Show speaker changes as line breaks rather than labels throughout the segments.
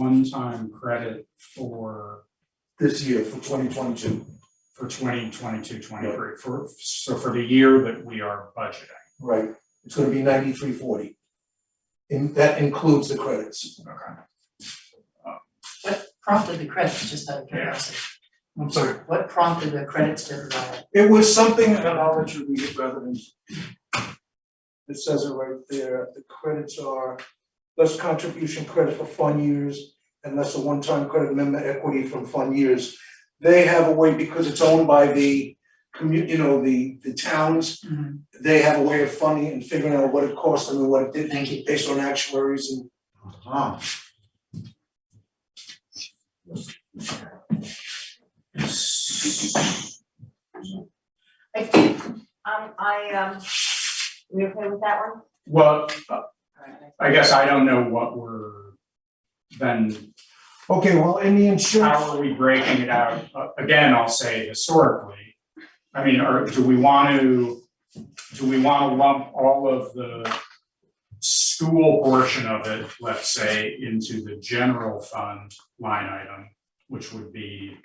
one-time credit for,
this year for twenty twenty-two,
for 2022-23 for, so for the year that we are budgeting.
right? It's gonna be ninety-three forty. And that includes the credits.
Okay.
What prompted the credits, just out of curiosity?
I'm sorry.
What prompted the credits to arrive?
It was something, and I'll let you read it rather than. It says it right there, the credits are less contribution credit for fund years and less a one-time credit member equity from fund years. They have a way, because it's owned by the commu, you know, the the towns, they have a way of funding and figuring out what it cost them and what it didn't.
Thank you.
based on actuaries and.
I do, um, I, um, we okay with that one?
Well,
Alright,
I guess I don't know what we're, then,
Okay, well, in the
how
insurance,
are we breaking it out? Uh, Again, I'll say historically, I mean, or do we want to, do we want to lump all of the school portion of it, let's say, into the general fund line item, which would be,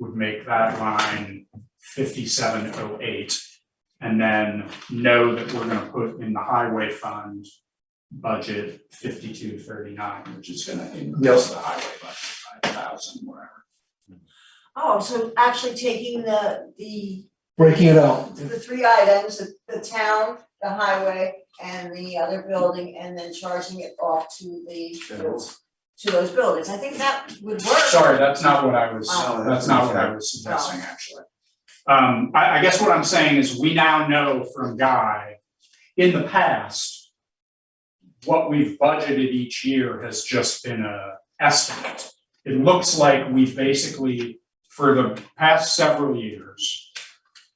would make that line fifty-seven oh eight. And then know that we're gonna put in the highway fund budget fifty-two thirty-nine, which is gonna increase the highway budget by thousand, whatever.
Oh, so actually taking the, the,
breaking it out,
the three items, the, the town, the highway, and the other building, and then charging it off to the, to those buildings, I think that would work.
Sorry, that's not what I was,
Oh.
that's not what I was suggesting, actually. Um, I, I guess what I'm saying is we now know from Guy, in the past, what we've budgeted each year has just been a estimate. It looks like we've basically, for the past several years,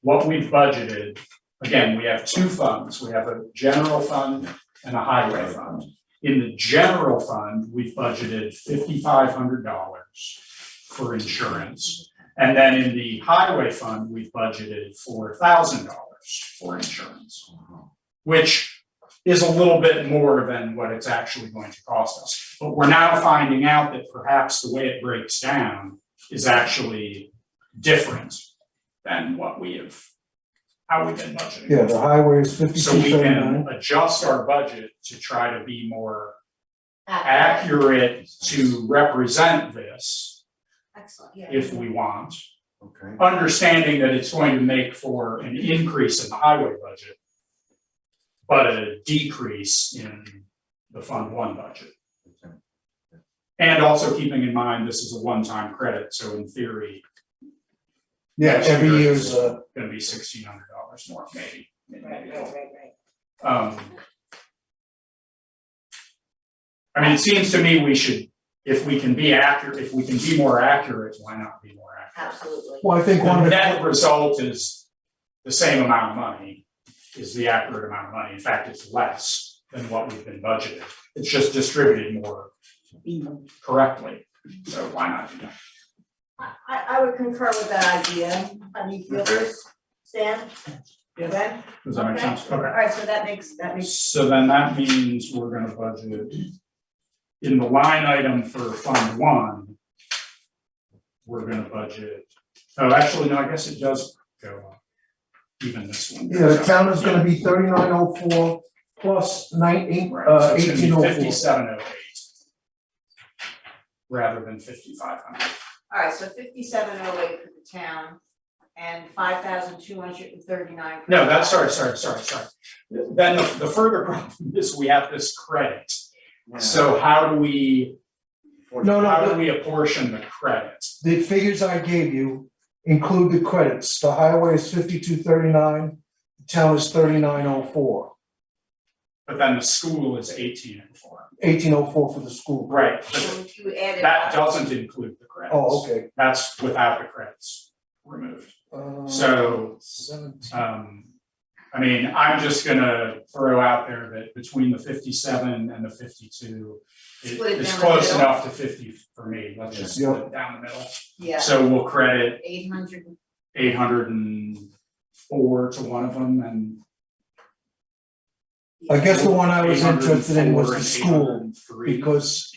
what we've budgeted, again, we have two funds, we have a general fund and a highway fund. In the general fund, we've budgeted fifty-five hundred dollars for insurance. And then in the highway fund, we've budgeted four thousand dollars for insurance. Which is a little bit more than what it's actually going to cost us. But we're now finding out that perhaps the way it breaks down is actually different than what we have, how we've been budgeting.
yeah, the highway is
So we
fifty-two
can
thirty-nine.
adjust our budget to try to be more
Accurate.
accurate to represent this
Excellent, yeah.
if we want.
Okay.
Understanding that it's going to make for an increase in the highway budget, but a decrease in the Fund One budget.
okay.
And also keeping in mind, this is a one-time credit, so in theory,
Yeah, every year's, uh,
gonna be sixteen hundred dollars more, maybe, maybe a
Right,
little
right, right, right.
Um. I mean, it seems to me we should, if we can be accurate, if we can be more accurate, why not be more accurate?
absolutely.
well, I think one
The
of the,
net result is the same amount of money, is the accurate amount of money, in fact, it's less than what we've been budgeted. It's just distributed more correctly, so why not do that?
I, I would concur with that idea, honey, feelers, Stan?
Yes.
Ben?
Does that make sense? Okay.
Alright, so that makes, that makes,
So then that means we're gonna budget in the line item for Fund One. We're gonna budget, oh, actually, no, I guess it does go up, even this one.
yeah, the
goes up.
town is gonna be thirty-nine oh four plus nineteen,
Right, so
uh,
it's gonna be
eighteen oh four.
fifty-seven oh eight. Rather than fifty-five hundred,
alright, so fifty-seven oh eight for the town, and five thousand two hundred and thirty-nine.
no, that's, sorry, sorry, sorry, sorry. Then the the further problem is we have this credit, so how do we,
No, no,
how
the-
do we apportion the credit?
the figures I gave you include the credits. The highway is fifty-two thirty-nine, the town is thirty-nine oh four.
But then the school is eighteen and four.
Eighteen oh four for the school.
Right,
So
but
if you added.
that doesn't include the credits.
Oh, okay.
That's without the credits removed.
Uh,
So,
Seventeen.
um, I mean, I'm just gonna throw out there that between the fifty-seven and the fifty-two, it-
Split it
it's
down the
close
middle.
enough to fifty for me, let's just
Yeah.
split it down the middle.
Yeah,
So we'll credit
eight hundred,
eight hundred and four to one of them and.
I guess the one I was interested in was
804
the
and
school
803.
because